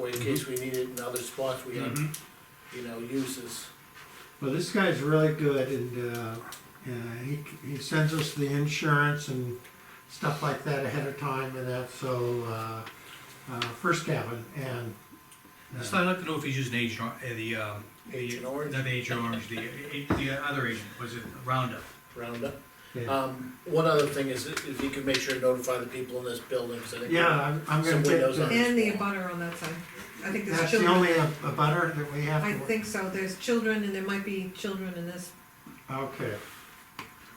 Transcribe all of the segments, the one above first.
way in case we need it in other spots we have, Mhm. Mm-hmm. you know, uses. Well, this guy's really good and, uh, uh, he, he sends us the insurance and stuff like that ahead of time and that, so, uh, uh, first cabin and. uh, So I'd like to know if he's using Agent, Or- uh, the, um. the- Agent Orange? Not Agent Orange, the, uh, the other agent, was it Roundup? Roundup. yeah. Um, one other thing is, if you could make sure to notify the people in this building, 'cause I think. Yeah, I'm, I'm gonna Some get, windows on. the- And the butter on that side. I think there's that's the children. only uh, a butter that we have to. I think so. There's children and there might be children in this. Okay.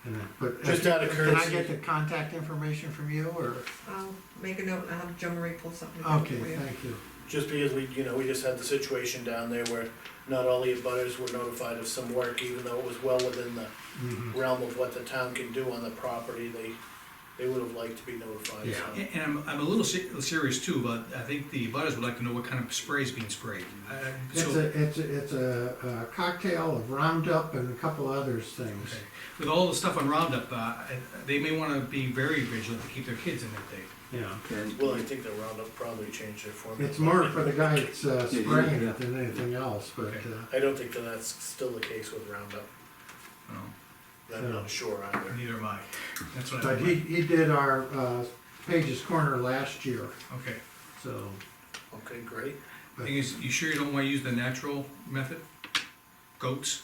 And then, but. Just out of Can I courtesy. get the contact information from you or? I'll make a note and I'll have Joe Marie pull something up for Okay, you. thank you. Just because we, you know, we just had the situation down there where not all the abutters were notified of some work, even though it was well within the Mhm. realm of what the town can do on the property, they, they would have liked to be notified, so. And, and I'm, I'm a little se- serious too, but I think the butters would like to know what kind of spray is being sprayed. I- I- It's so- a, it's a, it's a uh, cocktail of Roundup and a couple others things. Okay. With all the stuff on Roundup, uh, I- they may wanna be very vigilant to keep their kids in that day. Yeah. Well, I think the Roundup probably changed their format. It's more for the guy that's uh, Yeah, yeah, spraying yeah. it than anything else, but, Okay. uh, I don't think that that's still the case with Roundup, you know. I'm not sure either. Neither am I. That's what I. but he, he did our, uh, Page's Corner last year, Okay. so. Okay, great. Thing is, you sure you don't wanna use the natural method? Goats?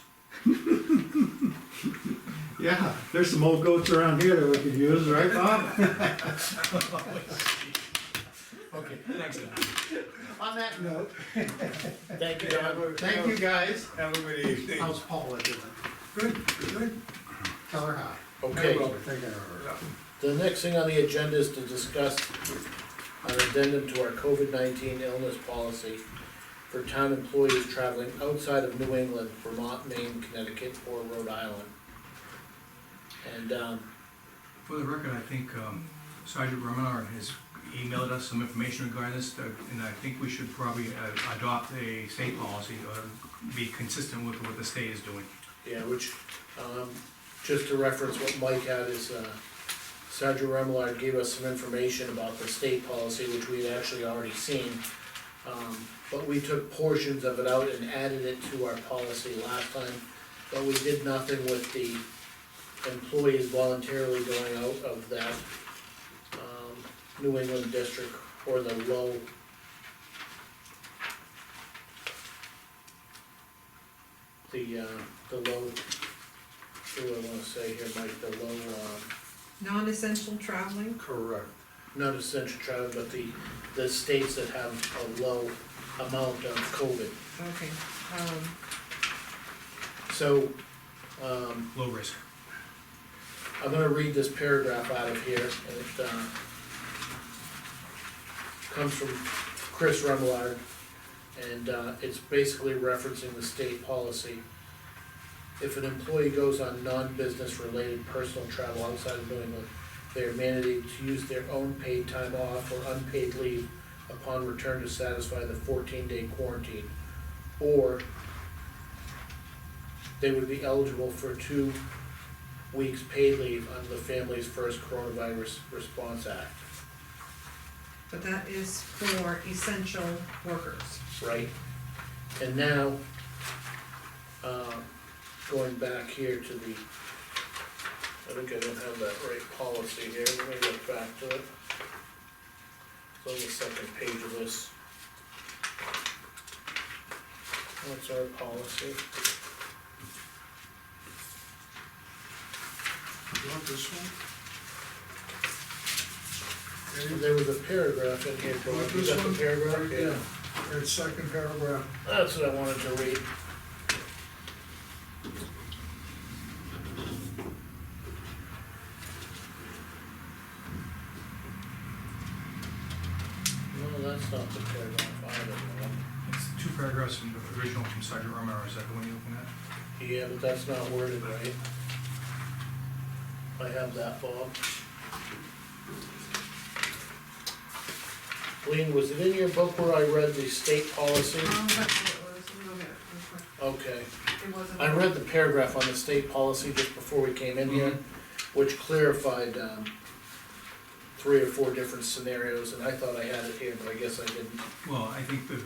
Yeah, there's some old goats around here that we could use, right, Bob? Okay, Thanks, Don. On that note, thank you, Don. thank you guys. Have a good evening. How's Paula doing? Good, good. Tell her hi. Okay, Well, take care of her. the next thing on the agenda is to discuss an addendum to our COVID nineteen illness policy for town employees traveling outside of New England, Vermont, Maine, Connecticut, or Rhode Island. And, um, For the record, I think um, Sergeant Romanar has emailed us some information regarding this, uh, and I think we should probably uh, adopt a state policy or be consistent with what the state is doing. Yeah, which, um, just to reference what Mike had is, uh, Sergeant Remillard gave us some information about the state policy, which we had actually already seen. Um, but we took portions of it out and added it to our policy last time, but we did nothing with the employees voluntarily going out of that, um, New England district or the low. The, uh, the low, what do I wanna say here, Mike, the low, um, Non-essential traveling. Correct. Not essential travel, but the, the states that have a low amount of COVID. Okay. Um, So, um, Low risk. I'm gonna read this paragraph out of here, and it, uh, comes from Chris Remillard, and, uh, it's basically referencing the state policy. If an employee goes on non-business related personal travel outside of New England, they are mandated to use their own paid time off or unpaid leave upon return to satisfy the fourteen day quarantine, or they would be eligible for two weeks paid leave under the Family's First Coronavirus Response Act, But that is for essential workers. right? And now, um, going back here to the, I think I don't have that right policy here, let me look back to it. It's on the second page of this. What's our policy? You want this one? There- There was a paragraph in here, Bill, you got the paragraph? Yeah, There's second paragraph. That's what I wanted to read. No, that's not the paragraph either, It's two paragraphs from the original from Sergeant Romanar, is that the one you're looking at? Bob. Yeah, but that's not worded right. I have that, Bob. Lean, was it in your book where I read the state policy? Um, that's what it was. Let me look at it real quick. Okay. It wasn't- I read the paragraph on the state policy just before we came in here, Mhm. which clarified, um, three or four different scenarios, and I thought I had it here, but I guess I didn't. Well, I think the